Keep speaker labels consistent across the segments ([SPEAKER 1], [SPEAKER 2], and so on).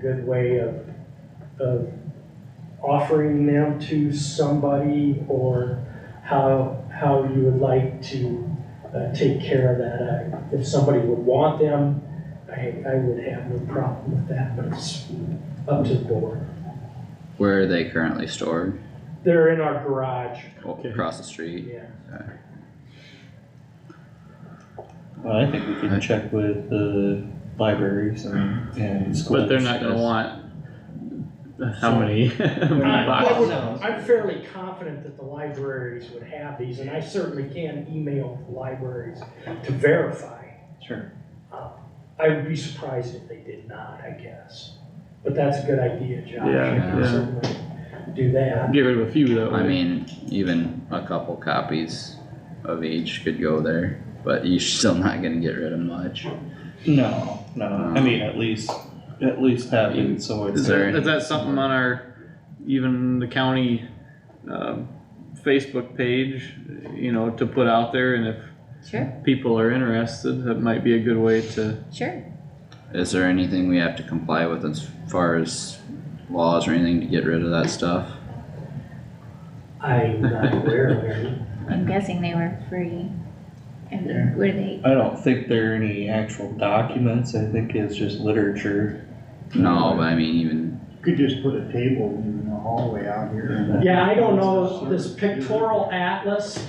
[SPEAKER 1] good way of, of offering them to somebody or how, how you would like to, uh, take care of that. I- If somebody would want them, I, I would have no problem with that, but it's up to the board.
[SPEAKER 2] Where are they currently stored?
[SPEAKER 1] They're in our garage,
[SPEAKER 2] Oh,
[SPEAKER 3] Okay.
[SPEAKER 2] Across the street?
[SPEAKER 1] yeah.
[SPEAKER 3] Well, I think we can check with the libraries and, and schools.
[SPEAKER 4] But they're not gonna want how many
[SPEAKER 1] I
[SPEAKER 4] boxes?
[SPEAKER 1] would- I'm fairly confident that the libraries would have these, and I certainly can email the libraries to verify. Uh,
[SPEAKER 3] Sure.
[SPEAKER 1] I would be surprised if they did not, I guess. But that's a good idea, Josh.
[SPEAKER 4] Yeah,
[SPEAKER 1] I can
[SPEAKER 2] yeah.
[SPEAKER 1] certainly Do that.
[SPEAKER 4] Get rid of a few that
[SPEAKER 2] I
[SPEAKER 4] way.
[SPEAKER 2] mean, even a couple copies of each could go there, but you're still not gonna get rid of much.
[SPEAKER 3] No, no, I mean, at least, at least have it, so it's.
[SPEAKER 4] Is there, is that something on our, even the county, um, Facebook page, you know, to put out there and if
[SPEAKER 5] Sure,
[SPEAKER 4] people are interested, that might be a good way to,
[SPEAKER 5] sure.
[SPEAKER 2] Is there anything we have to comply with as far as laws or anything to get rid of that stuff?
[SPEAKER 1] I'm not aware of any.
[SPEAKER 5] I'm guessing they were free. And were they?
[SPEAKER 3] I don't think there are any actual documents, I think it's just literature.
[SPEAKER 2] No, but I mean even,
[SPEAKER 6] Could just put a table in the hallway out here.
[SPEAKER 1] Yeah, I don't know, this pictorial atlas,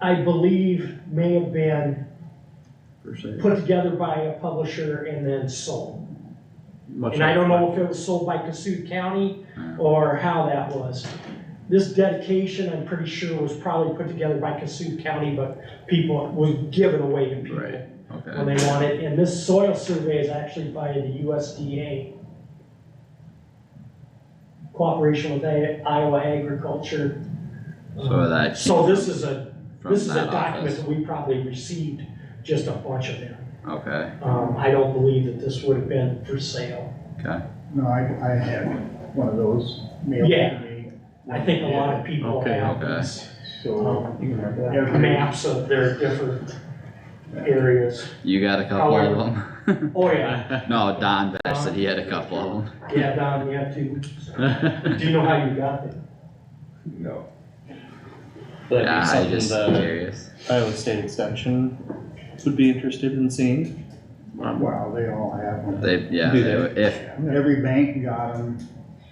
[SPEAKER 1] I believe may have been
[SPEAKER 4] per se.
[SPEAKER 1] put together by a publisher and then sold.
[SPEAKER 4] much
[SPEAKER 1] And I don't
[SPEAKER 4] like-
[SPEAKER 1] know if it was sold by Cassuth County
[SPEAKER 2] Yeah.
[SPEAKER 1] or how that was. This dedication, I'm pretty sure, was probably put together by Cassuth County, but people, was given away to people.
[SPEAKER 4] Right.
[SPEAKER 2] okay,
[SPEAKER 1] when they want it, and this soil survey is actually by the USDA. Cooperation with A- Iowa Agriculture. Um,
[SPEAKER 2] so that.
[SPEAKER 1] So this is a,
[SPEAKER 2] from
[SPEAKER 1] this is a
[SPEAKER 2] that
[SPEAKER 1] document
[SPEAKER 2] office,
[SPEAKER 1] that we probably received, just a bunch of them.
[SPEAKER 2] okay,
[SPEAKER 1] Um, I don't believe that this would have been for sale.
[SPEAKER 6] No, I, I had one of those mailed
[SPEAKER 1] Yeah.
[SPEAKER 6] to me,
[SPEAKER 1] I think a lot of people
[SPEAKER 4] Okay,
[SPEAKER 1] have
[SPEAKER 2] okay.
[SPEAKER 1] these
[SPEAKER 6] so.
[SPEAKER 3] Oh, You can have that.
[SPEAKER 6] every-
[SPEAKER 1] maps of their different areas.
[SPEAKER 2] you got a couple of them?
[SPEAKER 1] Oh, yeah,
[SPEAKER 2] No, Don Bash said he had a couple of them.
[SPEAKER 1] yeah, Don, you have to, do you know how you got them?
[SPEAKER 6] No.
[SPEAKER 2] Yeah, I
[SPEAKER 3] That'd be
[SPEAKER 2] just
[SPEAKER 3] something that
[SPEAKER 2] curious,
[SPEAKER 3] Iowa State Extension would be interested in seeing.
[SPEAKER 4] Um,
[SPEAKER 6] Wow, they all have them.
[SPEAKER 2] they, yeah,
[SPEAKER 3] Do
[SPEAKER 2] they
[SPEAKER 3] they?
[SPEAKER 2] would- if,
[SPEAKER 6] Every bank got them.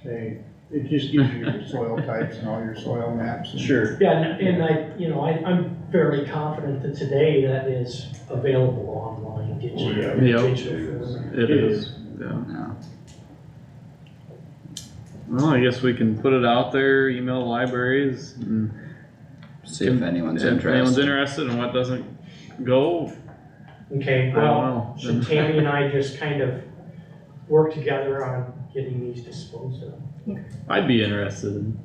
[SPEAKER 6] They, it just gives you your soil types and all your soil maps. and-
[SPEAKER 3] Sure.
[SPEAKER 1] Yeah, and, and I, you know, I, I'm fairly confident that today that is available online, digital.
[SPEAKER 6] Oh, yeah.
[SPEAKER 4] Yeah.
[SPEAKER 1] digital form.
[SPEAKER 4] It is, yeah.
[SPEAKER 2] no,
[SPEAKER 4] Well, I guess we can put it out there, email libraries and
[SPEAKER 2] see if anyone's
[SPEAKER 4] if anyone's
[SPEAKER 2] interested.
[SPEAKER 4] interested and what doesn't go, I
[SPEAKER 1] Okay,
[SPEAKER 4] don't
[SPEAKER 1] well,
[SPEAKER 4] know.
[SPEAKER 1] so Tammy and I just kind of work together on getting these disposed of.
[SPEAKER 4] I'd be interested in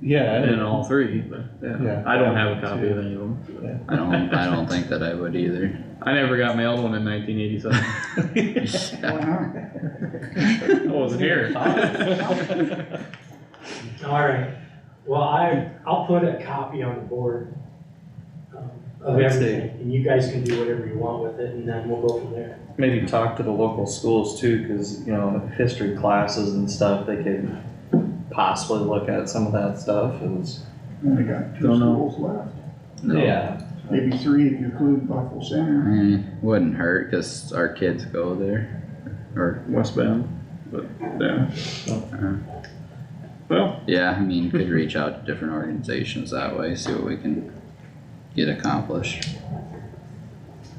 [SPEAKER 3] Yeah.
[SPEAKER 4] in all three, but yeah,
[SPEAKER 3] Yeah.
[SPEAKER 4] I don't have a copy of any of them.
[SPEAKER 2] I don't, I don't think that I would either.
[SPEAKER 4] I never got mailed one in nineteen eighty-seven.
[SPEAKER 6] Why
[SPEAKER 4] I
[SPEAKER 6] not?
[SPEAKER 4] wasn't here.
[SPEAKER 1] All right, well, I, I'll put a copy on the board um, of
[SPEAKER 3] Let's see.
[SPEAKER 1] everything, and you guys can do whatever you want with it, and then we'll go from there.
[SPEAKER 3] Maybe talk to the local schools too, cause you know, history classes and stuff, they could possibly look at some of that stuff and.
[SPEAKER 6] Only got two
[SPEAKER 4] Don't know.
[SPEAKER 6] schools left,
[SPEAKER 2] No.
[SPEAKER 6] maybe three if you include Buffalo Center.
[SPEAKER 2] Eh, wouldn't hurt, cause our kids go there, or,
[SPEAKER 4] Westbound, but yeah. Well,
[SPEAKER 2] yeah, I mean, could reach out to different organizations that way, see what we can get accomplished.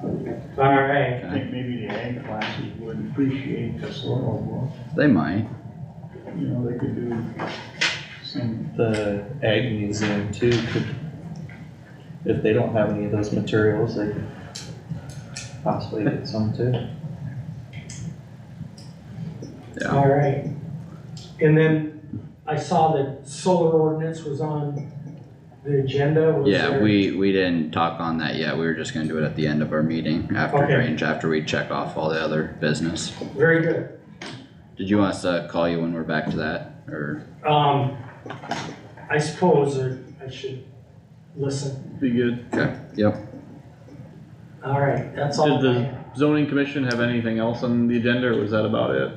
[SPEAKER 1] All right,
[SPEAKER 6] I think maybe the ag classes would appreciate the soil
[SPEAKER 2] They might,
[SPEAKER 6] book, you know, they could do some,
[SPEAKER 3] The Ag Museum too could, if they don't have any of those materials, they could possibly get some too.
[SPEAKER 2] yeah,
[SPEAKER 1] all right. And then I saw that solar ordinance was on the agenda, was there?
[SPEAKER 2] yeah, we, we didn't talk on that yet, we were just gonna do it at the end of our meeting, after
[SPEAKER 1] Okay.
[SPEAKER 2] range, after we check off all the other business.
[SPEAKER 1] Very good.
[SPEAKER 2] Did you want us to call you when we're back to that, or,
[SPEAKER 1] Um, I suppose or I should listen.
[SPEAKER 4] be good.
[SPEAKER 2] okay, yep.
[SPEAKER 1] All right, that's all.
[SPEAKER 4] Did
[SPEAKER 1] I have.
[SPEAKER 4] the zoning commission have anything else on the agenda or was that about it?